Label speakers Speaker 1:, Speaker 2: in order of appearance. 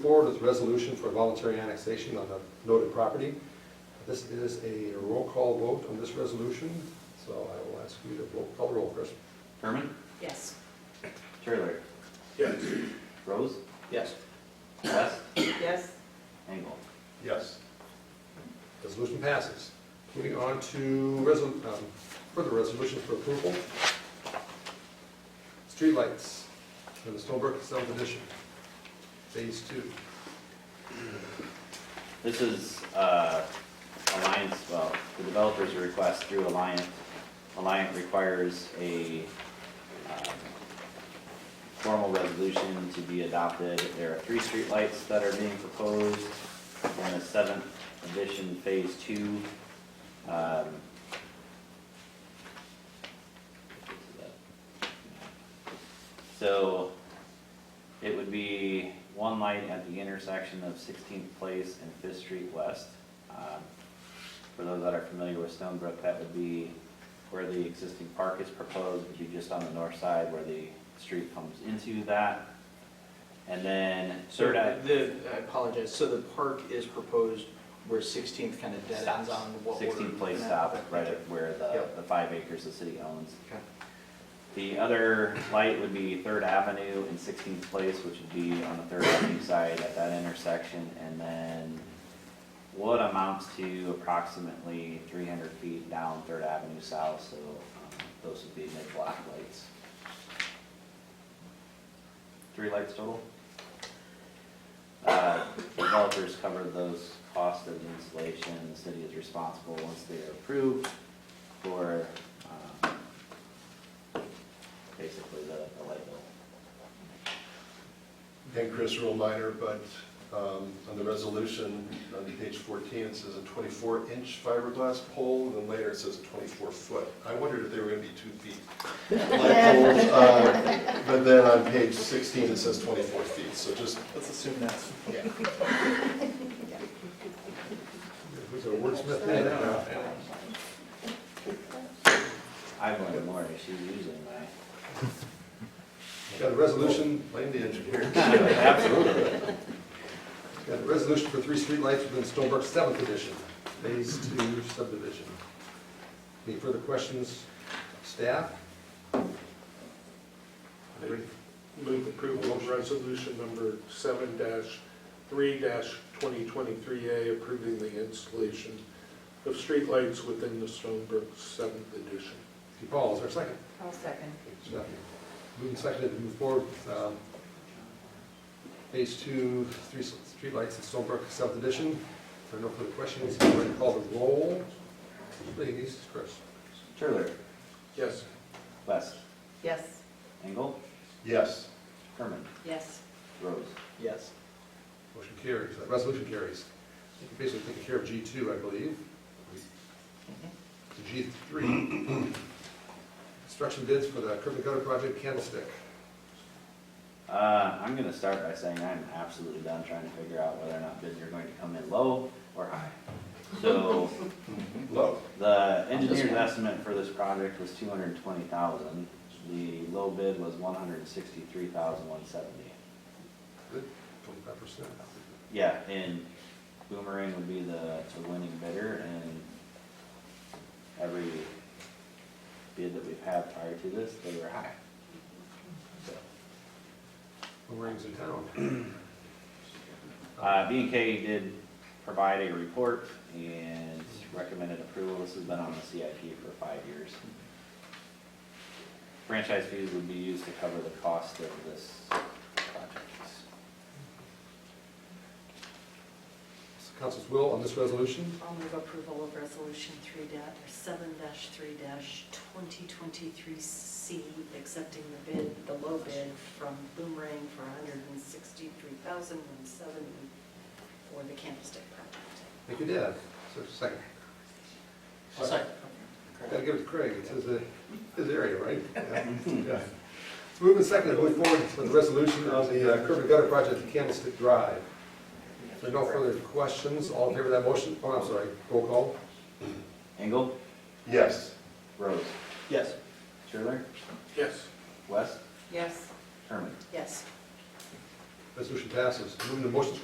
Speaker 1: Forward is a resolution for voluntary annexation on the noted property. This is a roll call vote on this resolution, so I will ask you to roll- call the roll, Chris.
Speaker 2: Herman?
Speaker 3: Yes.
Speaker 2: Trailer?
Speaker 4: Yes.
Speaker 2: Rose?
Speaker 4: Yes.
Speaker 2: West?
Speaker 3: Yes.
Speaker 2: Engel?
Speaker 4: Yes.
Speaker 1: Resolution passes. Moving on to resol- um, further resolutions for approval. Streetlights in the Stonebrook Seventh Edition, Phase Two.
Speaker 2: This is, uh, Alliance, well, the developer's request through Alliant. Alliant requires a, um, formal resolution to be adopted. There are three streetlights that are being proposed in the seventh edition, phase two. Um, So, it would be one light at the intersection of Sixteenth Place and Fifth Street West. Um, For those that are familiar with Stonebrook, that would be where the existing park is proposed, would be just on the north side where the street comes into that. And then
Speaker 4: So
Speaker 2: Third Ave.
Speaker 4: the, I apologize, so the park is proposed where Sixteenth kind of dead ends
Speaker 2: Stops.
Speaker 4: on what we're.
Speaker 2: 16 place
Speaker 4: looking at.
Speaker 2: stop, right at where the,
Speaker 4: Yep.
Speaker 2: the five acres the city owns.
Speaker 4: Okay.
Speaker 2: The other light would be Third Avenue and Sixteenth Place, which would be on the Third Avenue side at that intersection, and then what amounts to approximately three hundred feet down Third Avenue South, so um, those would be mid-block lights. Three lights total. Uh, Developers cover those costs of the installation, the city is responsible once they are approved for um, basically the, the light bill.
Speaker 5: And Chris, real minor, but um, on the resolution, on page 14, it says a 24-inch fiberglass pole, and then later it says 24-foot. I wondered if they were going to be two feet. light poles, uh, But then on page 16, it says 24 feet, so just,
Speaker 4: Let's assume that's,
Speaker 5: yeah.
Speaker 1: Who's a wordsmith there now?
Speaker 2: I've learned more, she's using my.
Speaker 1: Got a resolution,
Speaker 5: Blame the engineer.
Speaker 2: Absolutely.
Speaker 1: got a resolution for three streetlights within Stonebrook Seventh Edition, Phase Two subdivision. Any further questions, staff? Anybody?
Speaker 6: Move approval of resolution number seven three twenty twenty-three A approving the installation of streetlights within the Stonebrook Seventh Edition.
Speaker 1: Steve Paul, is there a second?
Speaker 3: I'll second.
Speaker 1: Moving seconded to move forward with um, phase two, three s- streetlights at Stonebrook South Edition. If there are no further questions, I'm going to call the roll. Please, Chris.
Speaker 2: Turler,
Speaker 6: Yes.
Speaker 2: West,
Speaker 3: Yes.
Speaker 2: Engel,
Speaker 5: Yes.
Speaker 2: Herman,
Speaker 3: Yes.
Speaker 2: Rose.
Speaker 4: yes.
Speaker 1: Motion carries, Uh, resolution carries. You can Basically taking care of G two, I believe. To G three. Construction bids for the curb and gutter project Candlestick.
Speaker 2: Uh, I'm gonna start by saying I'm absolutely done trying to figure out whether or not bids are going to come in low or high. So,
Speaker 5: Low.
Speaker 2: the engineer's estimate for this project was two hundred and twenty thousand. The low bid was one hundred and sixty-three thousand one seventy.
Speaker 1: Twenty-five percent.
Speaker 2: Yeah, and Boomerang would be the, the winning bidder, and every bid that we've had prior to this, they were high. So,
Speaker 1: Boomerangs in town.
Speaker 2: Uh, B and K did provide a report and recommended approval, this has been on the CIP for five years. Franchise fees would be used to cover the cost of this project.
Speaker 1: It's the Council's will on this resolution.
Speaker 3: I'll move approval of resolution three da, or seven dash three dash twenty twenty-three C, accepting the bid, the low bid from Boomerang for hundred and sixty-three thousand one seventy for the candlestick project.
Speaker 1: Thank you, Dad. So, second.
Speaker 4: I'll second.
Speaker 1: Gotta give it to Craig, it's his, uh, his area, right? Yeah. Yeah. Let's move in second, move forward with the resolution on the uh, curb and gutter project at Candlestick Drive. If there are no further questions, all in favor of that motion? Oh, I'm sorry, roll call.
Speaker 2: Engel,
Speaker 5: Yes.
Speaker 2: Rose,
Speaker 4: Yes.
Speaker 2: Schirler,
Speaker 6: Yes.
Speaker 2: West,
Speaker 3: Yes.
Speaker 2: Herman.
Speaker 3: Yes.
Speaker 1: Resolution passes. Moving to motions for